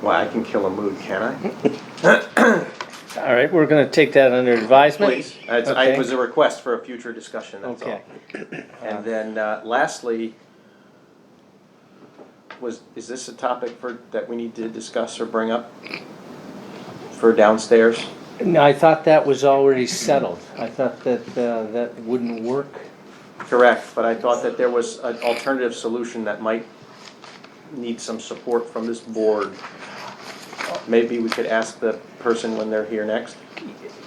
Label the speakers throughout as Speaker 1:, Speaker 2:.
Speaker 1: Why, I can kill a mood, can I?
Speaker 2: All right, we're gonna take that under advisement.
Speaker 1: Please. It's, I,
Speaker 2: Okay.
Speaker 1: it was a request for a future discussion, that's all.
Speaker 2: Okay.
Speaker 1: And then uh, lastly, was, is this a topic for, that we need to discuss or bring up? For downstairs?
Speaker 2: No, I thought that was already settled. I thought that, uh, that wouldn't work.
Speaker 1: Correct, but I thought that there was an alternative solution that might need some support from this board. Maybe we could ask the person when they're here next.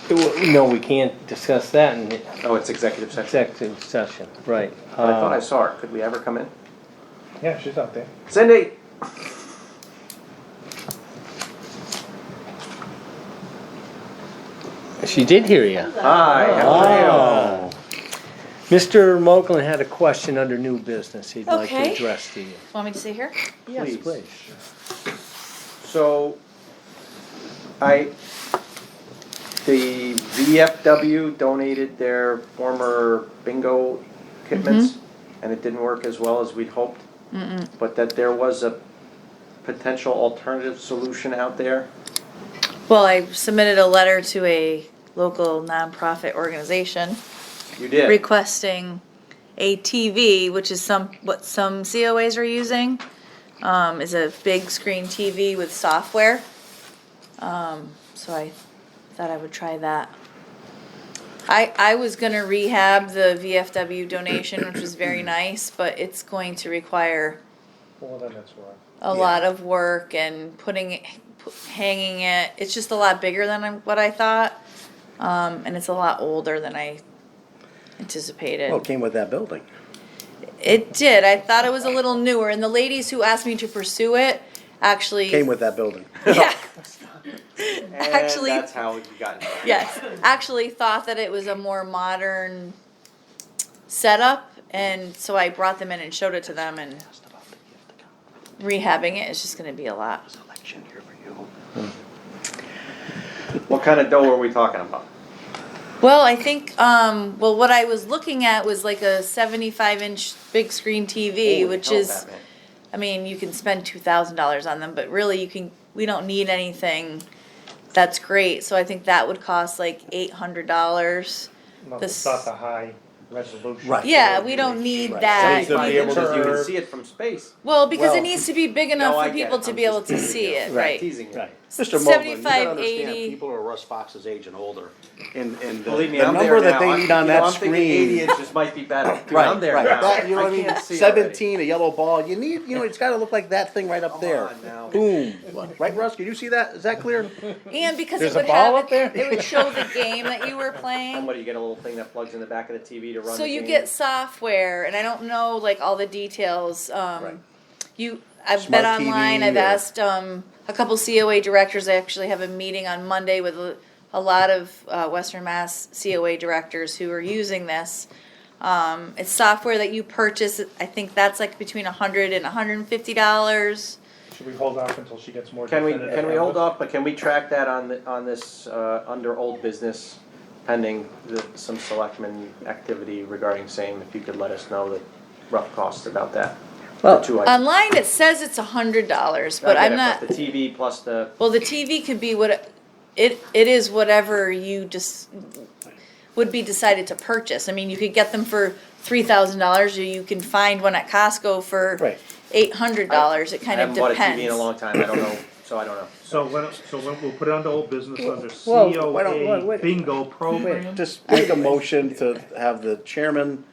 Speaker 2: It wa- No, we can't discuss that in
Speaker 1: Oh, it's executive session.
Speaker 2: executive session, Uh, right.
Speaker 1: I thought I saw her. Could we have her come in?
Speaker 3: Yeah, she's out there.
Speaker 1: Cindy?
Speaker 2: Uh, She did hear you.
Speaker 1: Hi, how are you?
Speaker 2: Oh. Mr. Moglen had a question under new business he'd like to
Speaker 4: Okay.
Speaker 2: address to you.
Speaker 4: Want me to sit here?
Speaker 1: Please.
Speaker 2: Yes, please.
Speaker 1: So, I, the VFW donated their former bingo kitments,
Speaker 4: Mm-hmm.
Speaker 1: and it didn't work as well as we'd hoped. But that there was a potential alternative solution out there.
Speaker 4: Well, I submitted a letter to a local nonprofit organization
Speaker 1: You did.
Speaker 4: requesting a TV, which is some, what some COAs are using, um, is a big screen TV with software. Um, so I thought I would try that. I, I was gonna rehab the VFW donation, which was very nice, but it's going to require
Speaker 3: Well, then that's why.
Speaker 4: a lot of work and putting it, pu- hanging it. It's just a lot bigger than I'm- what I thought, um, and it's a lot older than I anticipated.
Speaker 5: Well, Oh, it came with that building.
Speaker 4: It did. I thought it was a little newer, and the ladies who asked me to pursue it actually
Speaker 5: Came with that building.
Speaker 4: Yeah,
Speaker 1: And
Speaker 4: actually-
Speaker 1: that's how you got involved.
Speaker 4: yes, actually thought that it was a more modern setup, and so I brought them in and showed it to them. And rehabbing it is just going to be a lot.
Speaker 1: What kind of dough are we talking about?
Speaker 4: Well, I think, um, well, what I was looking at was like a seventy-five inch big screen TV,
Speaker 1: Holy
Speaker 4: which
Speaker 1: hell,
Speaker 4: is,
Speaker 1: Batman.
Speaker 4: I mean, you can spend two thousand dollars on them, but really you can, we don't need anything that's great, so I think that would cost like eight hundred dollars.
Speaker 3: No,
Speaker 4: The
Speaker 3: it's not
Speaker 4: s-
Speaker 3: the high resolution.
Speaker 5: Right.
Speaker 4: Yeah, we don't need
Speaker 5: Right.
Speaker 4: that.
Speaker 1: Cindy's gonna be
Speaker 4: You
Speaker 1: able
Speaker 4: can-
Speaker 1: to, you can see it from space.
Speaker 4: Well, because
Speaker 5: Well,
Speaker 4: it needs to be big
Speaker 1: No,
Speaker 4: enough
Speaker 1: I
Speaker 4: for
Speaker 1: get
Speaker 4: people
Speaker 1: it.
Speaker 4: to
Speaker 1: I'm
Speaker 4: be able
Speaker 1: just
Speaker 4: to see it, right?
Speaker 1: Teasing you.
Speaker 5: Mr. Mogul, you gotta
Speaker 4: 75,
Speaker 5: understand,
Speaker 4: 80.
Speaker 5: people are Russ Fox's age and older. And, and.
Speaker 1: Believe me,
Speaker 5: the
Speaker 1: I'm there
Speaker 5: number that
Speaker 1: now.
Speaker 5: they
Speaker 1: I-
Speaker 5: need
Speaker 1: you
Speaker 5: on
Speaker 1: know,
Speaker 5: that
Speaker 1: I'm thinking Eighty
Speaker 5: screen-
Speaker 1: inches might be better. Dude,
Speaker 5: Right,
Speaker 1: I'm there
Speaker 5: right.
Speaker 1: now.
Speaker 5: That- you know
Speaker 1: I
Speaker 5: what I mean?
Speaker 1: can't see already.
Speaker 5: Seventeen, a yellow ball, you need, you know, it's gotta look like that thing right up there.
Speaker 1: on now.
Speaker 5: Boom. Right, Russ, can you see that? Is that clear?
Speaker 4: And because it
Speaker 2: There's a
Speaker 4: would
Speaker 2: ball
Speaker 4: have,
Speaker 2: up there?
Speaker 4: it it would show the game that you were playing.
Speaker 1: And what, do you get a little thing that plugs in the back of the TV to run
Speaker 4: So
Speaker 1: the
Speaker 4: you
Speaker 1: game?
Speaker 4: get software, and I don't know like all the details. Um,
Speaker 5: Right.
Speaker 4: You, I've
Speaker 5: Smart
Speaker 4: been online.
Speaker 5: TV
Speaker 4: I've
Speaker 5: or-
Speaker 4: asked um, a couple COA directors. I actually have a meeting on Monday with a, a lot of uh, Western Mass COA directors who are using this. Um, it's software that you purchase. I think that's like between a hundred and a hundred and fifty dollars.
Speaker 3: Should we hold off until she gets more
Speaker 1: Can we,
Speaker 3: definitive?
Speaker 1: can we
Speaker 3: numbers?
Speaker 1: hold off, but can we track that on, the- on this, uh, under old business pending the, some selectmen activity regarding same, if you could let us know the rough cost about that?
Speaker 5: Well,
Speaker 1: The two items.
Speaker 4: Online, it says it's a hundred dollars,
Speaker 1: I
Speaker 4: Um, but
Speaker 1: get
Speaker 4: I'm
Speaker 1: it,
Speaker 4: not.
Speaker 1: The TV plus the,
Speaker 4: Well, the TV could be what it it is whatever you just would be decided to purchase. I mean, you could get them for three thousand dollars, or you can find one at Costco for
Speaker 5: Right.
Speaker 4: eight hundred dollars. It
Speaker 1: I
Speaker 4: kind of
Speaker 1: haven't bought a
Speaker 4: depends.
Speaker 1: TV in a long time, I don't know, so I don't know.
Speaker 6: So when, so when we'll put it under old business under
Speaker 5: Well, why don't- why-
Speaker 6: COA
Speaker 5: wait.
Speaker 6: bingo program.
Speaker 5: Just make a motion to have the chairman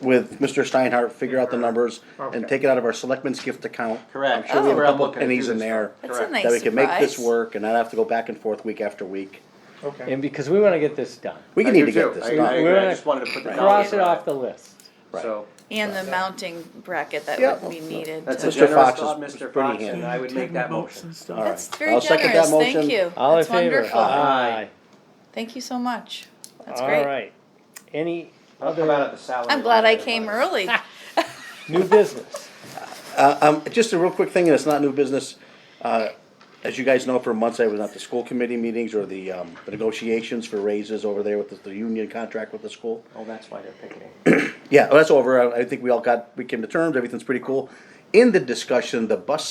Speaker 5: with Mr. Steinhardt figure out the numbers and take it out of our selectmen's gift account.
Speaker 1: Correct.
Speaker 5: I'm sure we have a
Speaker 1: Oh.
Speaker 5: couple of
Speaker 1: Looking at
Speaker 5: pennies in
Speaker 1: this.
Speaker 5: there.
Speaker 4: That's
Speaker 1: Correct.
Speaker 4: a nice
Speaker 5: That we can make this
Speaker 4: surprise.
Speaker 5: work and not have to go back and forth week after week.
Speaker 3: Okay.
Speaker 2: And because we wanna get this done.
Speaker 5: We
Speaker 1: I
Speaker 5: can need to
Speaker 1: do
Speaker 5: get
Speaker 1: too.
Speaker 5: this
Speaker 1: I- I
Speaker 5: done.
Speaker 1: agree. I
Speaker 2: We're
Speaker 1: just wanted to put the
Speaker 2: Cross
Speaker 1: dollars
Speaker 2: it off the list.
Speaker 5: Right.
Speaker 1: So,
Speaker 4: And the mounting bracket that
Speaker 5: Yeah.
Speaker 4: would be needed.
Speaker 1: that's
Speaker 4: to-
Speaker 1: a
Speaker 5: Mr.
Speaker 1: generous
Speaker 5: Fox
Speaker 1: thought,
Speaker 5: is- is
Speaker 1: Mr.
Speaker 5: pretty
Speaker 1: Fox, and
Speaker 5: handy.
Speaker 1: I would make that motion.
Speaker 5: All right.
Speaker 4: That's very
Speaker 5: I'll second that
Speaker 4: generous.
Speaker 5: motion.
Speaker 4: Thank you.
Speaker 2: All in
Speaker 4: That's
Speaker 2: favor?
Speaker 4: wonderful.
Speaker 5: Uh-huh.
Speaker 2: Aye.
Speaker 4: Thank you so much. That's
Speaker 2: All
Speaker 4: great.
Speaker 2: right. Any
Speaker 1: I'll come out of the salary.
Speaker 4: I'm glad I
Speaker 1: line
Speaker 4: came
Speaker 1: later.
Speaker 4: early.
Speaker 2: new business?
Speaker 5: Um, just a real quick thing, and it's not new business. Uh, as you guys know, for months I was at the school committee meetings or the, um, the negotiations for raises over there with the, the union contract with the school.
Speaker 1: Oh, that's why they're picking.
Speaker 5: Yeah, that's over. I, I think we all got, we came to terms, everything's pretty cool. In the discussion, the bus